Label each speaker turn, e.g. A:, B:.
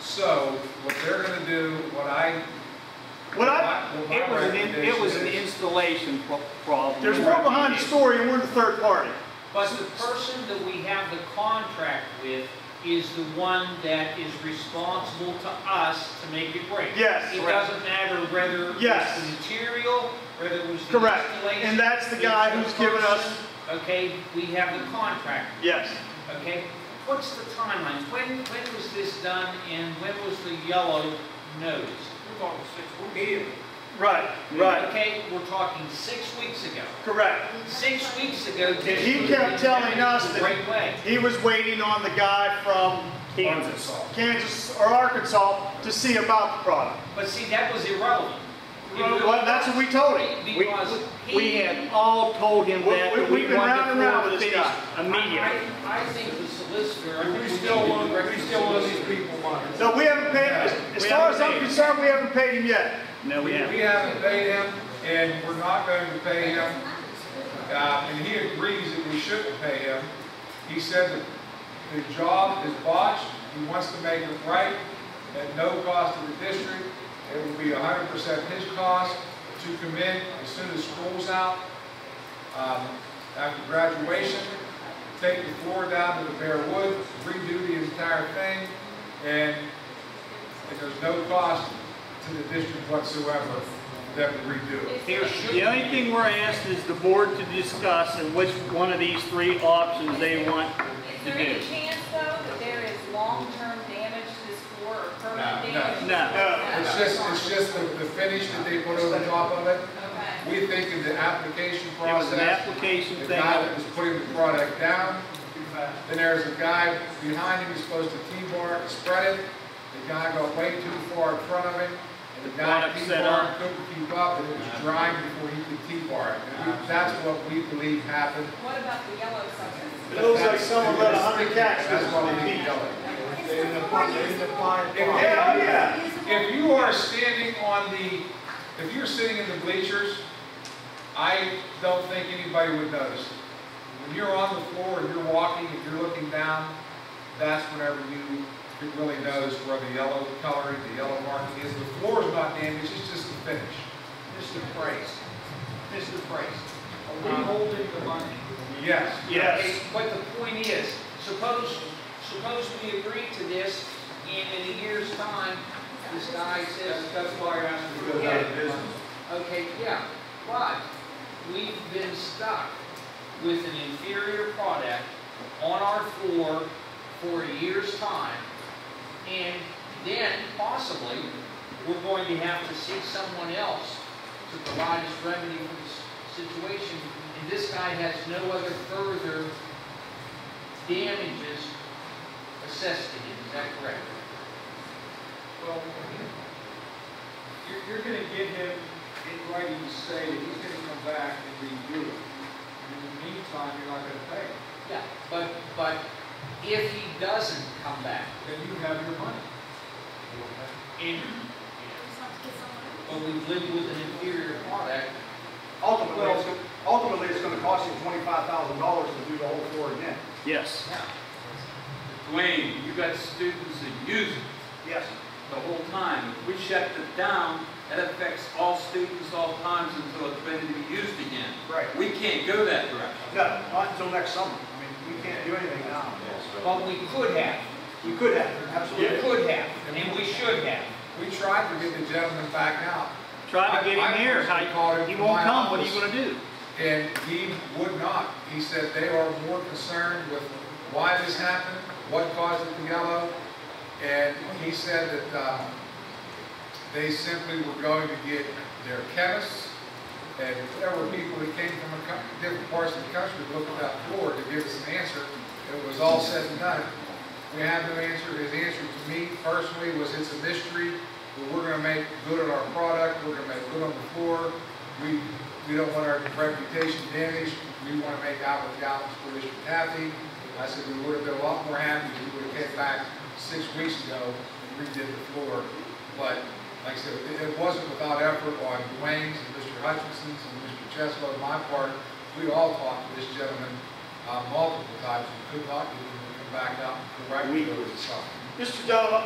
A: So what they're gonna do, what I,
B: What I,
A: what my
C: It was an, in- it was an
A: recommendation is-
C: installation pro- problem.
B: there's more behind the story and we're the third party.
D: But the person that we have the contract with is the one that is responsible to us to make it break.
B: Yes.
D: It doesn't matter whether it's
B: Yes.
D: the material, whether it was the
B: Correct.
D: installation.
B: And that's the guy
D: it's
B: who's given us-
D: person. Okay, we have the contract,
B: Yes.
D: okay? What's the timeline? When, when was this done and when was the yellow notice?
E: We're talking six, we're dealing.
B: Right, right,
D: Okay, we're talking six weeks ago.
B: correct.
D: Six weeks ago. this
B: He
D: was
B: kept
D: the-
B: telling us
D: the
B: that-
D: Right way.
B: He was waiting on the guy from
A: Kansas.
B: Kansas or Arkansas to see about the product.
D: But see, that was irrelevant.
B: Well, that's what we told him.
C: We,
D: Because
C: we
D: he,
C: had all told him
B: We-
C: that,
B: we-
C: that
B: we've
C: we
B: been
C: wanted
B: round
C: the
B: and round
C: floor
B: with this
C: finished
B: guy.
C: immediately.
D: I, I think the solicitor. I
E: And
D: think
E: we
D: need
E: still
D: to
E: owe,
D: direct
E: we
D: the
E: still owe these
D: solicitor.
E: people money.
B: No, we haven't paid, as- as
C: We
B: far as
C: haven't
B: I'm
C: paid.
B: concerned, we haven't paid him yet.
C: No, we
A: We
C: haven't.
A: haven't paid him, and we're not going to pay him. Uh, and he agrees that we shouldn't pay him. He said that the job is botched, he wants to make it right, at no cost to the district. It will be hundred percent his cost to commit as soon as school's out, um, after graduation. Take the floor down to the bare wood, redo the entire thing, and if there's no cost to the district whatsoever, then we redo it.
D: There should.
C: The only thing we're asked is the board to discuss and which one of these three options they want
F: Is
C: to
F: there any
C: do.
F: chance though that there is long-term damage to this floor or permanent
A: No, no.
F: damage? to
C: No.
F: this
A: It's just, it's just the, the finish that they put over top of it.
F: floor? Okay.
A: We think in the application
C: It was an
A: process,
C: application
A: the
C: thing.
A: guy that was putting the product down, then there's a guy behind him who's supposed to T-bar it, spread it. The guy got way too far in front of him, and the
C: The
A: guy
C: product set
A: T-bar
C: up.
A: couldn't keep up, and it was drying before he could T-bar it. And we- That's what we believe happened.
F: What about the yellow substance?
B: It looks like someone let a hundred cats
A: That's what we
B: loose.
A: need to know.
E: They end up, they end up buying
A: Yeah.
E: property.
B: Yeah, oh yeah.
A: If you are standing on the, if you're sitting in the bleachers, I don't think anybody would notice. When you're on the floor and you're walking, if you're looking down, that's whenever you, it really knows where the yellow coloring, the yellow marking is. The floor is not damaged, it's just the finish.
D: This is the price. This is the price.
E: We holding the money.
A: Yes.
B: Yes.
D: But the point is, suppose, suppose we agree to this and in a year's time, this guy says,
E: That's, that's why I asked you to go
D: Yeah.
E: out of business.
D: okay, yeah, but we've been stuck with an inferior product on our floor for a year's time. And then possibly, we're going to have to seek someone else to provide us remedy for this situation. And this guy has no other further damages assessed to him, is that correct?
E: Well, you're, you're gonna get him in writing to say that he's gonna come back and redo it. And in the meantime, you're not gonna pay him,
D: Yeah. But, but if he doesn't come back,
E: then you have your money.
D: And, but we've lived with an inferior product.
G: Ultimately, it's, ultimately, it's gonna cost you twenty-five thousand dollars to do the whole floor again.
C: Yes.
D: Yeah.
H: Dwayne, you got students that use it
G: Yes.
H: the whole time. If we shut it down, that affects all students, all times until it's ready to be used again.
G: Right.
H: We can't go that direction.
G: No, not until next summer. I mean, we can't do anything now.
D: But we could have,
G: We could have,
D: we
G: absolutely.
D: could have, and we should have.
A: We tried to get the gentleman back out,
C: Try to get
A: I- I
C: him here.
A: personally called
C: How,
A: him
C: he
A: from
C: won't
A: my
C: come. What are you
A: office.
C: gonna do?
A: and he would not. He said they are more concerned with why this happened, what caused it to yellow, and he said that um, they simply were going to get their chemists, and there were people that came from a cou- different parts of the country to look at that floor to give us an answer. It was all said and done. We have no answer. His answer to me personally was, it's a mystery, but we're gonna make good on our product, we're gonna make good on the floor. We, we don't want our reputation damaged, we wanna make out with the Allen School District happy. I said, we would've been a lot more happy if we would've hit back six weeks ago and redid the floor. But, like I said, it, it wasn't without effort on Dwayne's and Mr. Hutchinson's and Mr. Cheslow, and my part. We all talked to this gentleman, uh, multiple times, and could not get him to come back out and correct
C: We-
A: those something.
B: Mr. Donovan,